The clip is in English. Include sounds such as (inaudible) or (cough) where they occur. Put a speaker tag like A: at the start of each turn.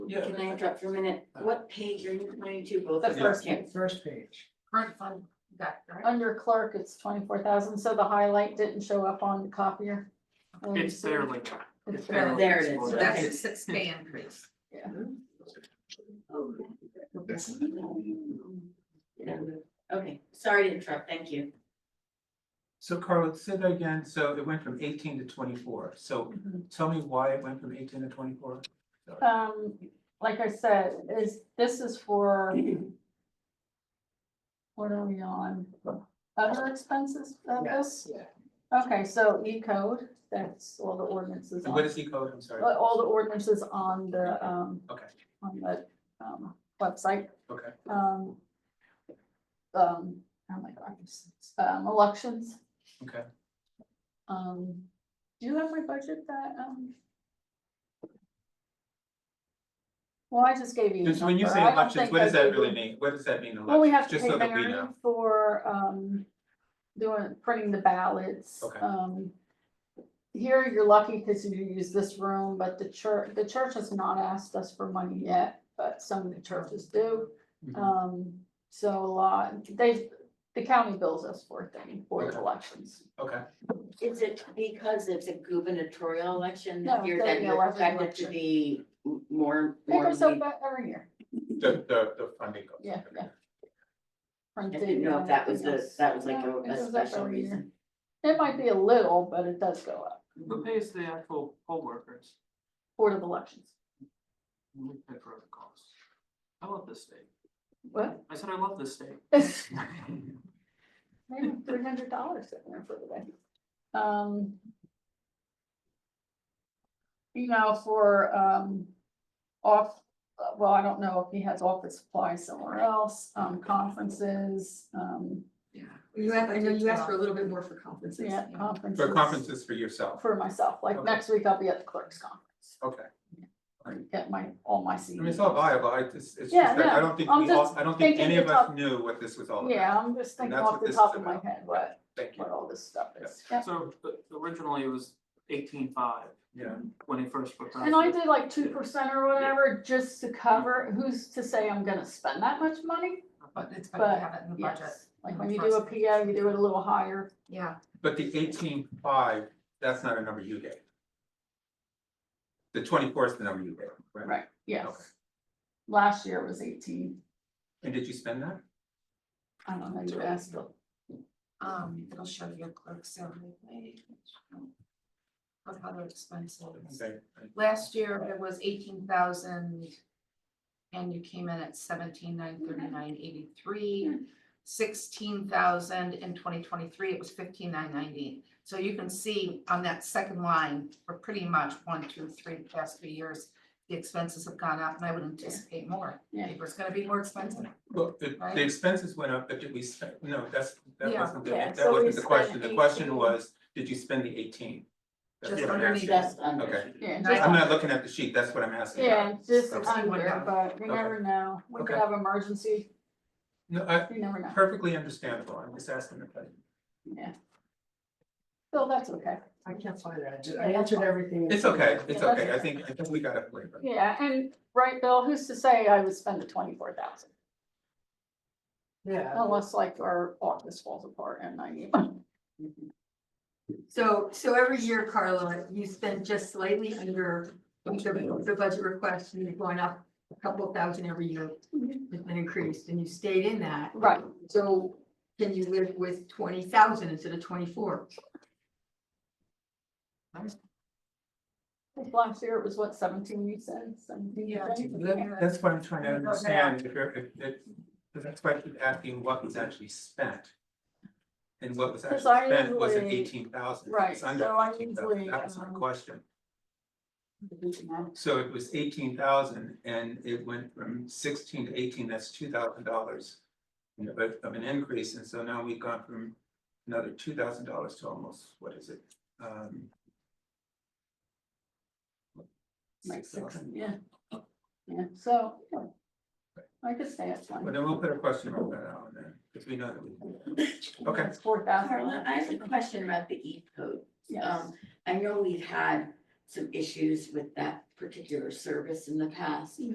A: Yeah.
B: can I interrupt for a minute? What page are you pointing to both?
C: The
B: of
C: first
B: you?
C: one.
D: First page.
E: Current fund, got it, right?
C: Under clerk, it's twenty-four thousand, so the highlight didn't show up on the copier. Um,
F: It's
C: so
F: barely.
C: It's
F: it's
C: barely.
F: barely
B: There it is.
F: visible.
E: So that's a six pay increase.
B: Okay, sorry to interrupt, thank you.
D: So Carla, say that again, so it went from eighteen to twenty-four, so
C: Mhm.
D: tell me why it went from eighteen to twenty-four?
C: Um, like I said, is, this is for. What are we on? Other expenses of this?
D: Yeah.
C: Okay, so E code, that's all the ordinances
D: And what
C: on,
D: is E code, I'm sorry,
C: all all the ordinances on the, um.
D: Okay.
C: On the, um, website.
D: okay,
C: um, um, oh my God, this is, um, elections.
D: okay.
C: Um, do you have my budget that, um? Well, I just gave you.
D: And
C: the
D: so when you
C: number.
D: say
C: I don't
D: elections,
C: think
D: what
C: I
D: does that
C: gave you-
D: really mean? What does that mean,
C: Well, we have
D: elections,
C: to
D: just
C: pay
D: so that we know?
C: Mary for, um, doing, printing the ballots.
D: Okay.
C: Um, here you're lucky because you use this room, but the church, the church has not asked us for money yet, but some of the churches do.
D: Mhm.
C: Um, so a lot, they, the county bills us for things, for the
D: Okay.
C: elections.
D: Mm-hmm. Okay,
B: Is it because it's a gubernatorial election
C: No,
B: that you're, that
C: the
B: you're
C: election
B: expected to
C: election.
B: be m- more,
C: They
B: more?
C: goes up
B: lead-
C: every year,
D: the, the, the funding goes.
C: yeah, yeah.
B: I didn't know if that was the, that was like a, a special reason.
C: It might be a little, but it does go up,
F: Who pays the actual poll workers?
C: Board of Elections.
F: We pay for the costs. I love this state.
C: What?
F: I said I
C: (laughs)
F: love this state. (laughs)
C: Maybe three hundred dollars sitting there for the day. Um. You know, for, um, off, well, I don't know if he has office supplies somewhere else, um, conferences, um,
E: Yeah. You asked, I know you asked for a little bit more for conferences.
C: yeah, um, conferences.
D: For conferences for yourself,
C: For myself, like
D: Okay.
C: next week I'll be at the clerk's conference,
D: okay.
C: get my, all my
D: I
C: CDs.
D: mean, it's all viable, I just, it's just
C: Yeah,
D: that I
C: no,
D: don't think
C: I'm
D: we all,
C: just
D: I don't think
C: thinking
D: any of
C: it's
D: us
C: up-
D: knew what this was all about.
C: Yeah, I'm just
D: Oh, And
C: thinking
D: that's
C: off
D: what
C: the
D: this
C: top
D: is
C: of my
D: about.
C: head, what,
D: Thank you,
C: what all this stuff is, yeah.
F: So but originally it was eighteen five
D: yeah.
F: when it first put.
C: And I did like two percent or whatever, just to cover, who's to say I'm gonna spend that much money?
E: But it's better to have it in the budget.
C: Yes, like when you do a PO, you do it a little higher,
E: Yeah,
D: But the eighteen five, that's not a number you gave. The twenty four is the number you gave, right?
C: right,
D: Okay.
C: yes. Last year was eighteen,
D: And did you spend that?
C: I don't know, you asked, Bill.
E: um, it'll show your clerk salary wage. Of other expenses.
D: Okay.
E: Last year it was eighteen thousand. And you came in at seventeen nine thirty nine eighty three. Sixteen thousand in twenty twenty three, it was fifteen nine ninety. So you can see on that second line, for pretty much one, two, three, the past three years. The expenses have gone up and I would anticipate more.
C: Yeah.
E: Paper's gonna be more expensive.
D: Well, the,
E: Right.
D: the expenses went up, but did we spend, no, that's, that
E: Yeah.
D: wasn't, the-
C: Yeah,
D: that
C: so we
D: wasn't the
C: spent
D: question, the
C: 18.
D: question was, did you spend the eighteen? That's
E: Just
D: what I'm
E: underneath.
D: asking.
B: Just under.
D: Okay.
C: yeah,
E: Nice.
C: just-
D: I'm not looking at the sheet, that's what I'm asking.
C: yeah, just uh,
D: Okay.
C: under, but you never know, we could
D: Okay.
C: have emergency,
D: No, I,
C: you never know,
D: perfectly understandable, I'm just asking the question.
C: so that's okay.
G: I can't find it. I ju- I answered everything.
D: It's okay, it's
C: Yeah.
D: okay, I think, I think we got a flavor.
C: Yeah, and, right, Bill, who's to say I would spend the twenty-four thousand?
G: Yeah.
C: Unless like our office falls apart and
B: (laughs)
C: I need money.
H: So, so every year, Carla, you spend just slightly under the, the budget request, and you've gone up a couple of thousand every year. It's been increased, and you stayed in that,
C: Right,
H: so can you live with twenty thousand instead of twenty-four?
C: last year it was what, seventeen you said, seventeen?
E: Yeah,
C: right?
D: That- That's what I'm trying to understand, if you're, if, if, that's why I keep asking what was actually spent. And what was actually
C: 'Cause I
D: spent was an
C: usually-
D: eighteen thousand,
C: Right,
D: it's under
C: so I
D: eighteen
C: usually,
D: thousand, that was my
C: um,
D: question.
C: We can have-
D: So it was eighteen thousand and it went from sixteen to eighteen, that's two thousand dollars. Of, of an increase, and so now we've gone from another two thousand dollars to almost, what is it? Um,
C: Like six,
D: 6,000.
C: yeah. Yeah, so. yeah. I could say it's
D: Well,
C: one.
D: then we'll put a question mark there on that, because we know that we.
B: Uh,
D: Okay.
C: It's four
B: Carla,
C: thousand.
B: I have a question about the E code.
C: Yes,
B: Um, I know we've had some issues with that particular service in the past.